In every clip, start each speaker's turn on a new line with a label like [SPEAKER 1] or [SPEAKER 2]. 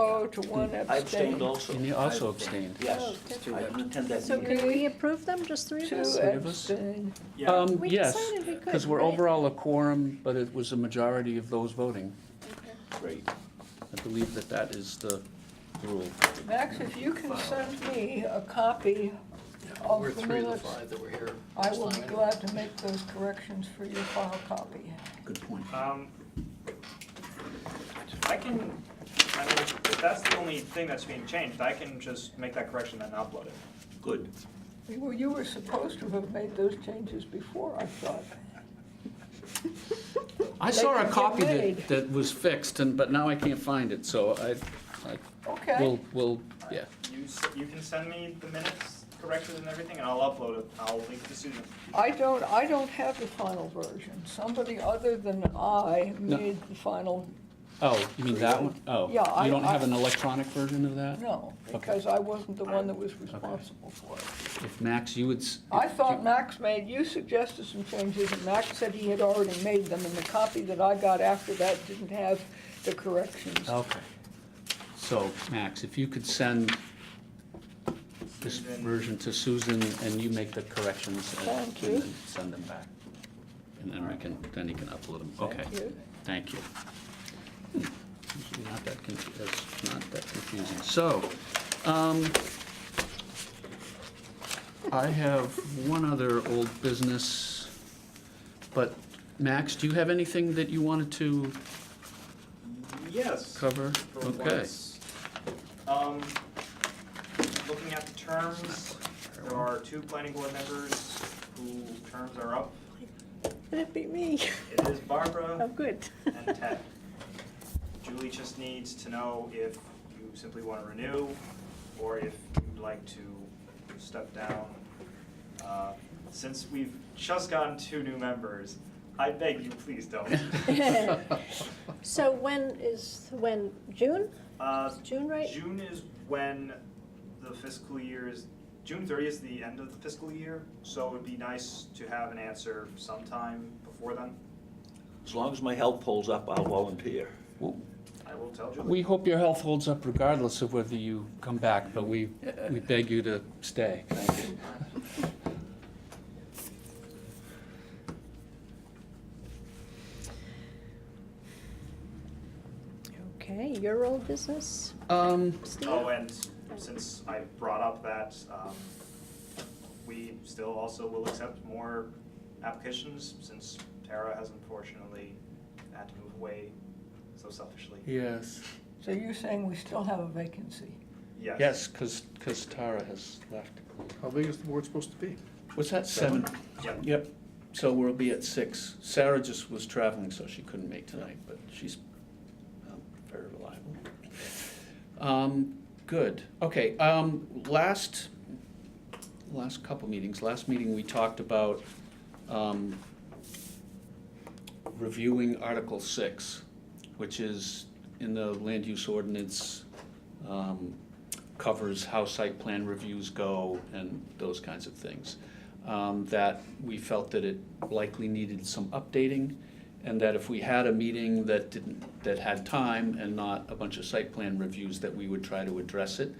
[SPEAKER 1] no to one
[SPEAKER 2] I abstained
[SPEAKER 1] abstain.
[SPEAKER 2] also.
[SPEAKER 3] And you also abstained.
[SPEAKER 2] Yes,
[SPEAKER 1] Oh, that's
[SPEAKER 2] I didn't attend that
[SPEAKER 1] So
[SPEAKER 2] meeting.
[SPEAKER 1] can
[SPEAKER 4] Can we approve them, just three of
[SPEAKER 1] Two
[SPEAKER 5] uh,
[SPEAKER 4] us?
[SPEAKER 3] Three of us?
[SPEAKER 1] abstain.
[SPEAKER 2] Yeah,
[SPEAKER 3] Um,
[SPEAKER 4] We
[SPEAKER 5] oh,
[SPEAKER 3] yes,
[SPEAKER 4] decided we could,
[SPEAKER 3] because we're
[SPEAKER 4] right?
[SPEAKER 3] overall a quorum, but it was a majority of those voting.
[SPEAKER 2] great.
[SPEAKER 3] I believe that that is the rule.
[SPEAKER 1] Max, if you can send me a copy of
[SPEAKER 6] We're
[SPEAKER 1] the
[SPEAKER 6] three of the
[SPEAKER 1] minutes,
[SPEAKER 6] five that were here.
[SPEAKER 1] I will be glad to make those corrections for your file copy.
[SPEAKER 2] Good point.
[SPEAKER 5] Um, I can, I mean, if that's the only thing that's being changed, I can just make that correction and upload it.
[SPEAKER 2] Good.
[SPEAKER 1] Well, you were supposed to have made those changes before, I thought.
[SPEAKER 3] I saw
[SPEAKER 1] They
[SPEAKER 3] a
[SPEAKER 1] didn't
[SPEAKER 3] copy
[SPEAKER 1] get made.
[SPEAKER 3] that, that was fixed, and, but now I can't find it, so I, I,
[SPEAKER 1] Okay,
[SPEAKER 3] we'll, we'll, yeah.
[SPEAKER 5] You, s- you can send me the minutes corrected and everything, and I'll upload it, I'll link to Susan.
[SPEAKER 1] I don't, I don't have the final version. Somebody other than I
[SPEAKER 3] No.
[SPEAKER 1] made the final,
[SPEAKER 3] Oh, you mean that one? Oh.
[SPEAKER 1] Yeah, I-
[SPEAKER 3] You don't
[SPEAKER 1] I-
[SPEAKER 3] have an electronic version of that?
[SPEAKER 1] no, because I wasn't the one that was responsible for it.
[SPEAKER 3] If Max, you would. s-
[SPEAKER 1] I thought Max made, you suggested some changes, and Max said he had already made them, and the copy that I got after that didn't have the corrections.
[SPEAKER 3] Okay. So, Max, if you could send this
[SPEAKER 5] Susan.
[SPEAKER 3] version to Susan and you make the corrections and-
[SPEAKER 1] Thank you.
[SPEAKER 3] and then send them back. And then we can, then you can upload them. Okay.
[SPEAKER 1] Thank you.
[SPEAKER 3] Thank you. Usually Not that, confu- that's not that confusing. So, um, I have one other old business, but Max, do you have anything that you wanted to
[SPEAKER 5] Yes.
[SPEAKER 3] cover?
[SPEAKER 5] for
[SPEAKER 3] Okay.
[SPEAKER 5] once. Um, looking at the terms, there are two planning board members whose terms are up.
[SPEAKER 4] Would it be me?
[SPEAKER 5] It is Barbara
[SPEAKER 4] Oh, good.
[SPEAKER 5] and Ted. Julie just needs to know if you simply want to renew, or if you'd like to step down. Uh, Since we've just gotten two new members, I beg you, please don't.
[SPEAKER 4] So when is, when, June?
[SPEAKER 5] Uh,
[SPEAKER 4] June, right?
[SPEAKER 5] June is when the fiscal year is, June 30 is the end of the fiscal year, so it would be nice to have an answer sometime before then.
[SPEAKER 2] As long as my health holds up, I'll volunteer.
[SPEAKER 5] I will tell Julie.
[SPEAKER 3] We hope your health holds up regardless of whether you come back, but we, we beg you to stay.
[SPEAKER 2] Thank you.
[SPEAKER 4] Okay, your old business,
[SPEAKER 3] Um,
[SPEAKER 4] Steve?
[SPEAKER 5] Oh, and since I brought up that, um, we still also will accept more applications since Tara has unfortunately had to move away so selfishly.
[SPEAKER 3] yes.
[SPEAKER 1] So you're saying we still have a vacancy?
[SPEAKER 5] Yes.
[SPEAKER 3] Yes, because, Tara has left.
[SPEAKER 6] How big is the board supposed to be?
[SPEAKER 3] Was that seven?
[SPEAKER 5] Yep.
[SPEAKER 3] Yep, so we'll be at six. Sarah just was traveling, so she couldn't make tonight, but she's um, very reliable. Um, good, okay, um, last, last couple meetings, last meeting, we talked about, um, reviewing Article Six, which is in the land use ordinance, um, covers how site plan reviews go and those kinds of things. Um, that we felt that it likely needed some updating, and that if we had a meeting that didn't, that had time and not a bunch of site plan reviews, that we would try to address it.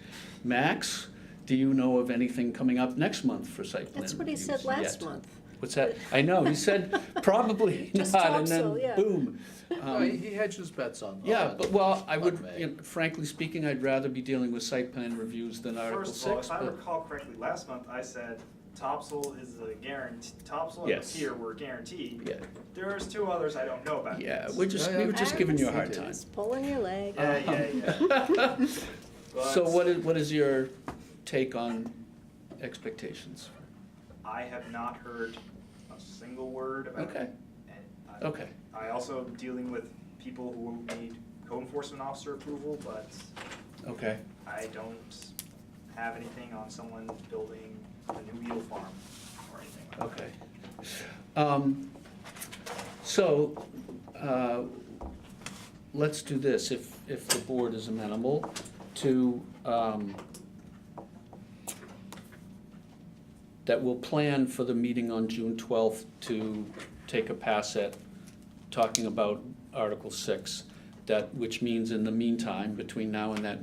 [SPEAKER 3] Max, do you know of anything coming up next month for site plan
[SPEAKER 4] That's what he said
[SPEAKER 3] reviews
[SPEAKER 4] last
[SPEAKER 3] yet?
[SPEAKER 4] month.
[SPEAKER 3] What's that? I know, he said probably
[SPEAKER 4] Just
[SPEAKER 3] not,
[SPEAKER 4] hope
[SPEAKER 3] and
[SPEAKER 4] so,
[SPEAKER 3] then
[SPEAKER 4] yeah.
[SPEAKER 3] boom.
[SPEAKER 6] No, he
[SPEAKER 3] Um,
[SPEAKER 6] he hedged his bets on.
[SPEAKER 3] Yeah,
[SPEAKER 6] on-
[SPEAKER 3] but, well, I
[SPEAKER 6] on
[SPEAKER 3] would,
[SPEAKER 6] May.
[SPEAKER 3] you know, frankly speaking, I'd rather be dealing with site plan reviews than Article
[SPEAKER 5] First of all,
[SPEAKER 3] Six.
[SPEAKER 5] if I
[SPEAKER 3] but-
[SPEAKER 5] recall correctly, last month I said topsoil is a guarantee, topsoil and
[SPEAKER 3] Yes.
[SPEAKER 5] tier were guaranteed.
[SPEAKER 3] Yeah,
[SPEAKER 5] There's two others I don't know about.
[SPEAKER 3] yeah,
[SPEAKER 5] yet.
[SPEAKER 3] we're just,
[SPEAKER 6] Yeah,
[SPEAKER 3] we
[SPEAKER 6] yeah.
[SPEAKER 3] were just giving you a hard time.
[SPEAKER 4] Just pulling your leg.
[SPEAKER 5] Yeah, yeah, yeah.
[SPEAKER 3] So
[SPEAKER 5] But-
[SPEAKER 3] what is, what is your take on expectations?
[SPEAKER 5] I have not heard a single word about
[SPEAKER 3] Okay,
[SPEAKER 5] it. And I-
[SPEAKER 3] okay,
[SPEAKER 5] I also am dealing with people who need code enforcement officer approval, but
[SPEAKER 3] okay.
[SPEAKER 5] I don't have anything on someone building a new eel farm or anything like that.
[SPEAKER 3] Okay. Um, So, uh, let's do this, if, if the board is amenable to, um, that we'll plan for the meeting on June twelfth to take a pass at talking about Article Six, that, which means in the meantime, between now and that